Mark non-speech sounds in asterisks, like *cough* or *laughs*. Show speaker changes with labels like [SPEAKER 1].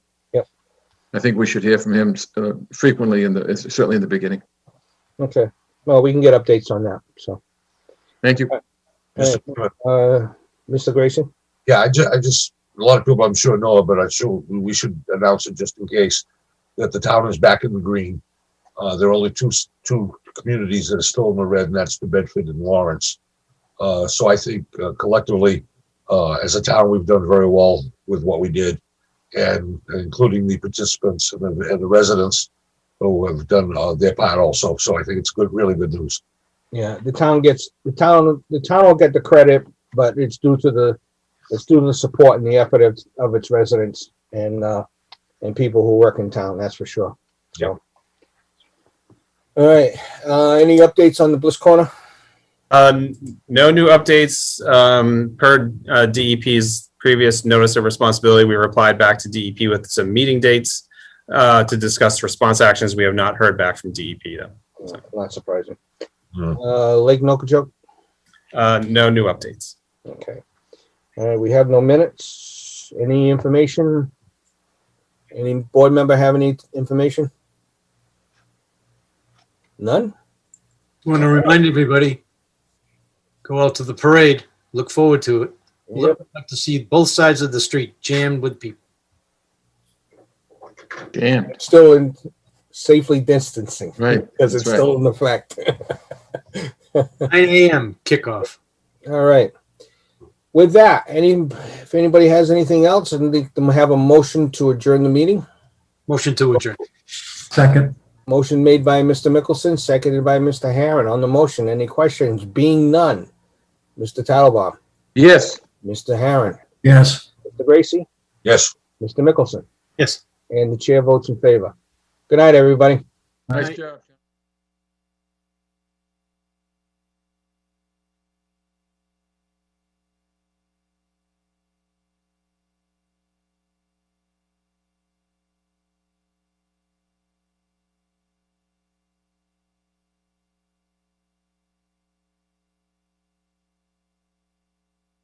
[SPEAKER 1] I think we should hear from him uh, frequently in the, certainly in the beginning.
[SPEAKER 2] Okay, well, we can get updates on that, so.
[SPEAKER 1] Thank you.
[SPEAKER 2] Hey,
[SPEAKER 3] Mr. Chairman,
[SPEAKER 2] Uh, Mr. Grayson?
[SPEAKER 3] Yeah, I ju- I just, a lot of people I'm sure know, but I'm sure we should announce it just in case, that the town is back in the green. Uh, there are only two, s- two communities that are still in the red, and that's New Bedford and Lawrence. Uh, so I think uh, collectively, uh, as a town, we've done very well with what we did. And including the participants and the, and the residents who have done, uh, their part also. So I think it's good, really good news.
[SPEAKER 2] Yeah, the town gets, the town, the town will get the credit, but it's due to the, it's due to the support and the effort of, of its residents and, uh, and people who work in town, that's for sure. So. All right, uh, any updates on the Bliss Corner?
[SPEAKER 4] Um, no new updates, um, per, uh, DEP's previous notice of responsibility. We replied back to DEP with some meeting dates, uh, to discuss response actions. We have not heard back from DEP though.
[SPEAKER 2] Not surprising.
[SPEAKER 3] Hmm.
[SPEAKER 2] Uh, Lake Nokijoke?
[SPEAKER 4] Uh, no new updates.
[SPEAKER 2] Okay. Uh, we have no minutes. Any information? Any board member have any information? None?
[SPEAKER 5] Want to remind everybody, go out to the parade. Look forward to it. Look up to see both sides of the street jammed with people.
[SPEAKER 1] Damn,
[SPEAKER 2] Still in safely distancing.
[SPEAKER 1] Right,
[SPEAKER 2] Because
[SPEAKER 1] that's
[SPEAKER 2] it's still in effect. *laughs*
[SPEAKER 5] 9 a.m. kickoff.
[SPEAKER 2] All right. With that, any, if anybody has anything else, and they can have a motion to adjourn the meeting.
[SPEAKER 5] Motion to adjourn.
[SPEAKER 6] Second.
[SPEAKER 2] Motion made by Mr. Mickelson, seconded by Mr. Harron. On the motion, any questions? Being none. Mr. Tattelbaum,
[SPEAKER 1] yes.
[SPEAKER 2] Mr. Harron,
[SPEAKER 6] Yes.
[SPEAKER 2] Mr. Gracie?
[SPEAKER 3] Yes.
[SPEAKER 2] Mr. Mickelson,
[SPEAKER 5] Yes.
[SPEAKER 2] and the chair votes in favor. Good night, everybody.
[SPEAKER 1] Nice job.